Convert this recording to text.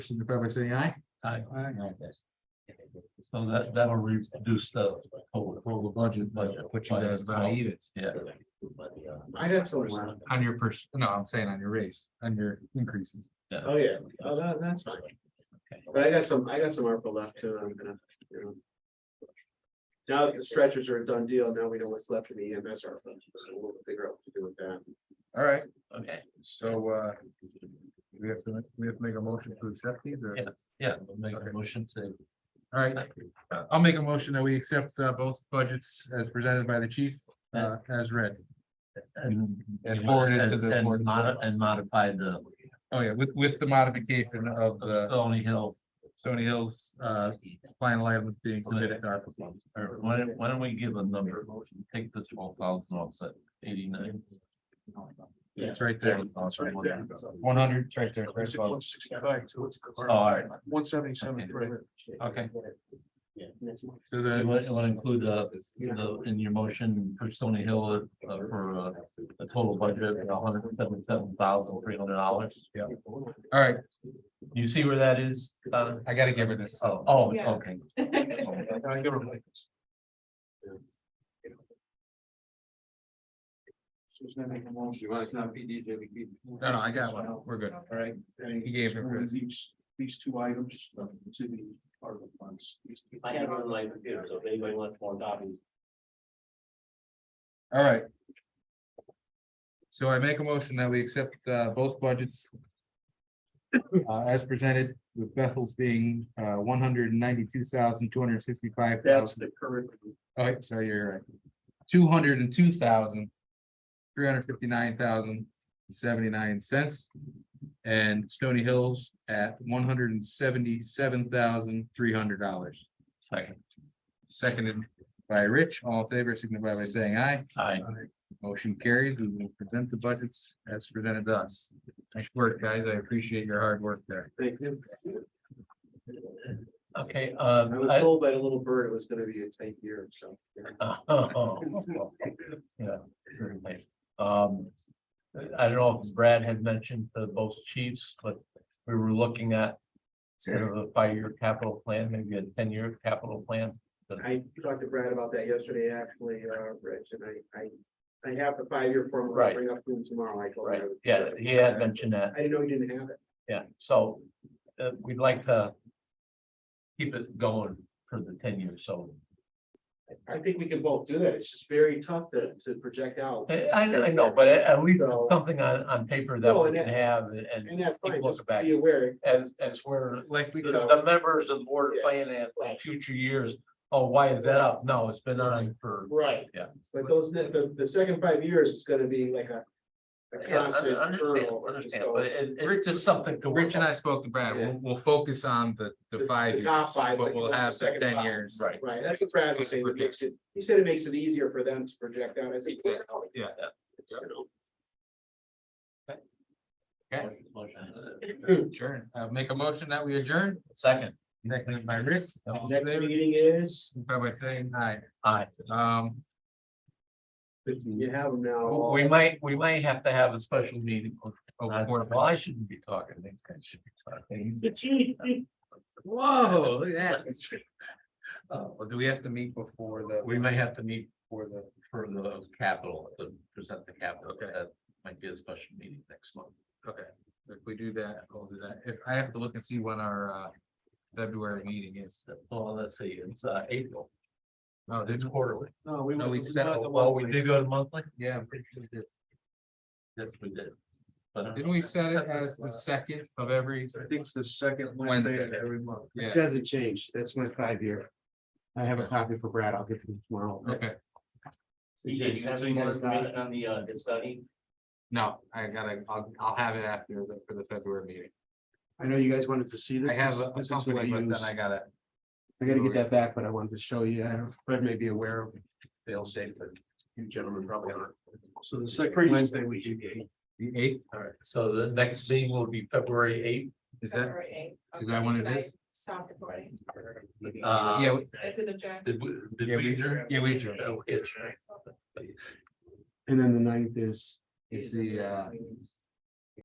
signify by saying aye. Aye. Aye. So that, that'll reduce the total. Total budget. Budget. Which you guys about even. Yeah. I got so one on your person, no, I'm saying on your raise, on your increases. Oh, yeah, oh, that, that's fine. But I got some, I got some ARPA left too, that I'm gonna, you know. Now that the stretchers are a done deal, now we know what's left in the EMS ARPA, so we'll figure out what to do with that. All right, Okay, so uh. We have to, we have to make a motion to accept these or, yeah, we'll make a motion to. all right, uh, I'll make a motion that we accept uh both budgets as presented by the chief uh as read. And And forward it to the and board. modi- and modify the Oh, yeah, with with the modification of the Stony Hill. Stony Hills uh final items being submitted to our. Or why don't, why don't we give a number, take the twelve thousand offset eighty-nine? It's right there. One hundred, it's right there. All right, One seventy-seven. okay. So You want, you want the, to include uh, the, in your motion, push Stony Hill uh, for uh, a total budget of hundred and seventy-seven thousand, three hundred dollars. Yeah. all right, You see where that is? Uh, I gotta give her this. oh, oh, Yeah. okay. No, no, I got one. We're good. All right. and He gave it for us. These, these two items uh, to the ARPA funds. I have it on my computer, so if anybody wants more copies. All right. So I make a motion that we accept uh both budgets. Uh as presented with Bethel's being uh one hundred and ninety-two thousand, two hundred and sixty-five That's thousand. the current, All right, sorry, you're right. Two hundred and two thousand, three hundred fifty-nine thousand, seventy-nine cents. And Stony Hills at one hundred and seventy-seven thousand, three hundred dollars. Second, Seconded by Rich, all in favor, signify by saying aye. I, Motion carries. We will present the budgets as presented to us. Nice work, guys. I appreciate your hard work there. thank you. okay, uh, I was I- told by a little bird it was gonna be a tight year, so. yeah. Yeah. very late. Um, I don't know if Brad had mentioned the both chiefs, but we were looking at. Instead of a five-year capital plan, maybe a ten-year capital plan. I talked to Brad about that yesterday, actually, uh, Rich, and I, I, I have the five-year formula. I'll Right. Bring up to him tomorrow, I told him. I would- Yeah, he had mentioned that. I didn't know he didn't have it. Yeah, so uh, we'd like to. Keep it going for the ten years, so I think we can both do that. It's just very tough to, to project out. I I I know, but at least So- something on on paper that No, we and can that- have and- and And that's fine, People just look back. be aware. as as we're. Like we, The the members of the Board of Finance in future years, oh, why is that up? No, it's been on for. Right. Yeah. But those, ne- the, the second five years is gonna be like a. A Yeah, I- I constant Understand, journal. understand, but it it's just something to. work Rich and I spoke to Brad. We'll, we'll focus on the, the five The years, top five, but but we'll not the have the second ten five. years. Right. Right, that's what Brad was saying, it makes it, he said it makes it easier for them to project out as. a- Yeah. It's, you know, Okay, on. Hmm. sure. Uh, make a motion that we adjourn. Second. Seconded by Rich. All in Next favor, meeting is, signify By saying aye. Aye. Um, you have them now. all- we might, we might have to have a special meeting. on- on- Well, I shouldn't be talking, these guys should be talking. whoa, look at that. Oh, well, do we have to meet before the? We may have to meet for the, for the capital, to present the capital, Okay. that might be a special meeting next month. Okay, if we do that, we'll do that. If I have to look and see when our uh February meeting is. Well, let's see, it's uh April, Oh, did it's quarterly. No, we No, went- we went set- the Well, we monthly. did go to monthly, Yeah, I'm pretty sure we did. yes, we did. But- uh, Didn't we set it as the second of every? I think it's the second Wednesday Wednesday of every month. Yeah, This hasn't changed. That's my five year. I have a copy for Brad. I'll get to him tomorrow. okay. TJ, you have any more information on the, uh, the study? No, I gotta, I'll, I'll have it after the, for the February meeting. I know you guys wanted to see this. I have a This is what I company, but use. then I gotta, I gotta get that back, but I wanted to show you. I don't, Brad may be aware of fail safe, but you gentlemen probably aren't. So the second Wednesday we should be. the eighth, All right, so the next meeting will be February eighth. is that, February eighth. is that when it Okay, is? Stop recording. Uh, yeah, we- Is it adjourned? Did we? did Yeah, we- adjourn? yeah, we adjourned. Oh, it's right. And then the ninth is it's the uh